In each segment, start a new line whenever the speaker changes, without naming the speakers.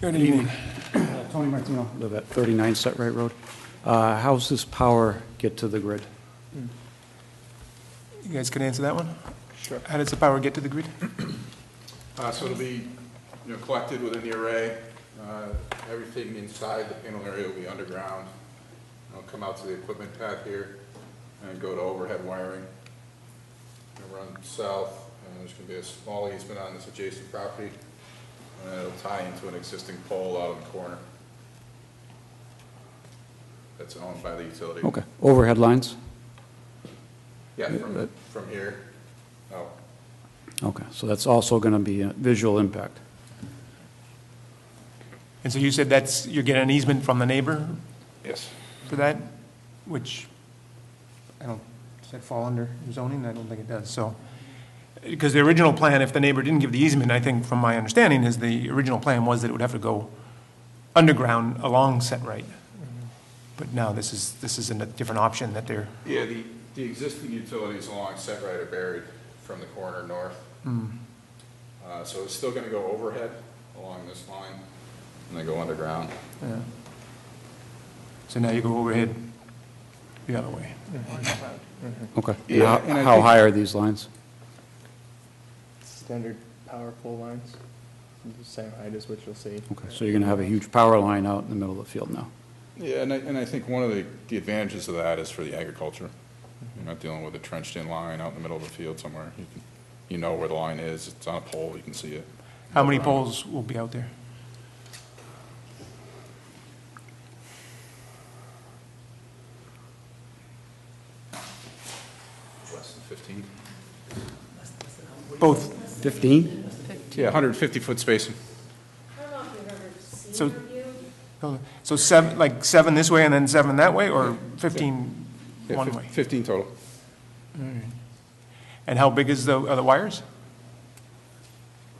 Good evening.
Uh, Tony Martino, live at 39 Set Right Road. Uh, How's this power get to the grid?
You guys can answer that one? Sure. How does the power get to the grid?
Uh, So it'll be, you know, collected within the array. Uh, Everything inside the panel area will be underground. It'll come out to the equipment pad here and go to overhead wiring. It'll run south, and there's gonna be a small easement on this adjacent property. And it'll tie into an existing pole out in the corner. That's owned by the utility.
Okay, overhead lines?
Yeah, from, from here. Oh,
Okay, so that's also going to be a visual impact.
And so you said that's, you're getting an easement from the neighbor
yes.
for that, which, I don't, does that fall under zoning? I don't think it does, so. Because the original plan, if the neighbor didn't give the easement, I think from my understanding, is the original plan was that it would have to go underground along Set Right. But now this is, this is a different option that they're,
Yeah, the, the existing utilities along Set Right are buried from the corner north. Uh, so it's still gonna go overhead along this line, and then go underground.
so now you go overhead the other way.
Okay. And
Yeah,
how-
and I
How
think-
high are these lines?
Standard power pole lines, the same height as what you'll see.
Okay, so you're going to have a huge power line out in the middle of the field now.
Yeah, and I, and I think one of the, the advantages of that is for the agriculture. You're not dealing with a trenched-in line out in the middle of the field somewhere. You can, you know where the line is, it's on a pole, you can see it.
How many poles will be out there?
Less than fifteen?
Both
15?
Yeah, hundred and fifty-foot spacing.
I don't know if you've ever
So-
seen a review.
So seven, like seven this way and then seven that way, or 15
Yeah,
one
fif-
way?
Fifteen total.
And how big is the, are the wires?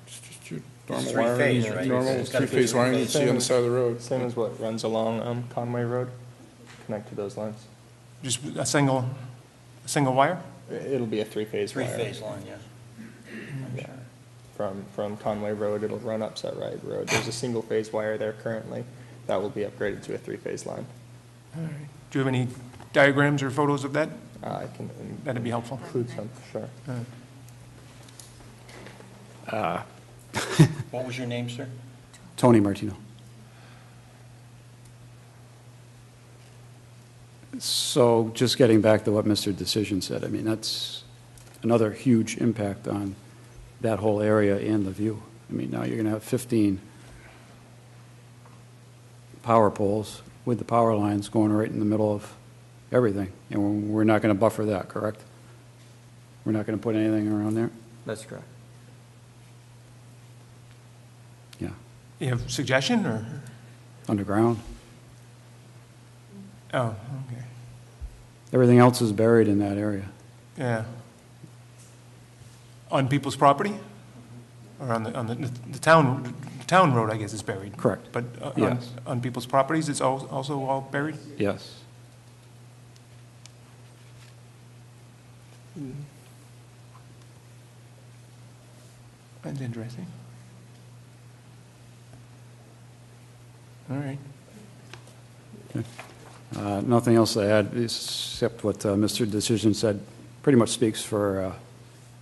Just- just your Normal
three-phase,
wiring,
right?
normal
It's gotta be
three-phase wiring you see on the side of the road.
Same as what runs along um, Conway Road, connect to those lines.
Just a single, a single wire?
I- It'll be a three-phase wire.
Three-phase line, yeah.
Yeah. From, from Conway Road, it'll run up Set Right Road. There's a single-phase wire there currently. That will be upgraded to a three-phase line.
Do you have any diagrams or photos of that?
Uh, I can in-
That'd be helpful.
include some, sure.
What was your name, sir?
Tony Martino. So just getting back to what Mr. Decision said, I mean, that's another huge impact on that whole area and the view. I mean, now you're going to have 15 power poles with the power lines going right in the middle of everything, and we're- we're not going to buffer that, correct? We're not going to put anything around there?
That's correct.
Yeah,
You have suggestion, or?
underground.
Oh, okay,
Everything else is buried in that area.
yeah. On people's property? Or on the, on the, the town, the town road, I guess, is buried?
Correct.
But uh, on,
Yes.
on people's properties, it's al- also all buried?
Yes.
That's interesting. All right.
Uh, Nothing else to add, except what uh, Mr. Decision said, pretty much speaks for, uh,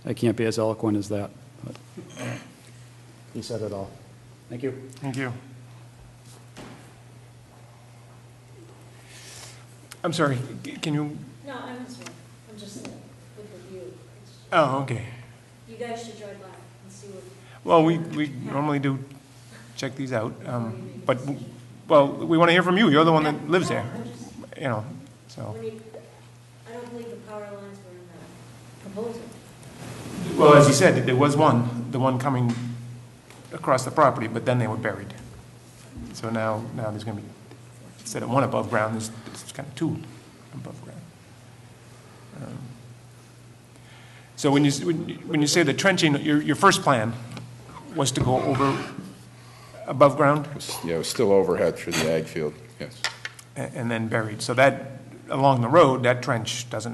I can't be as eloquent as that, but he said it all. Thank you.
Thank you. I'm sorry, c- can you,
No, I was wrong. I'm just uh, with the view. It's-
oh, okay.
You guys should drive by and see what.
Well, we, we normally do check these out, um, but, well, we want to hear from you, you're the one that lives there,
I'm just-
you know, so.
when you- I don't believe the power lines were in the proposal.
Well, as you said, there was one, the one coming across the property, but then they were buried. So now, now there's going to be, instead of one above ground, there's, there's kind of two above ground. Um, So when you, s- when you- when you say the trenching, your, your first plan was to go over above ground
Yeah, it was still overhead through the ag field, yes.
a- and then buried. So that, along the road, that trench doesn't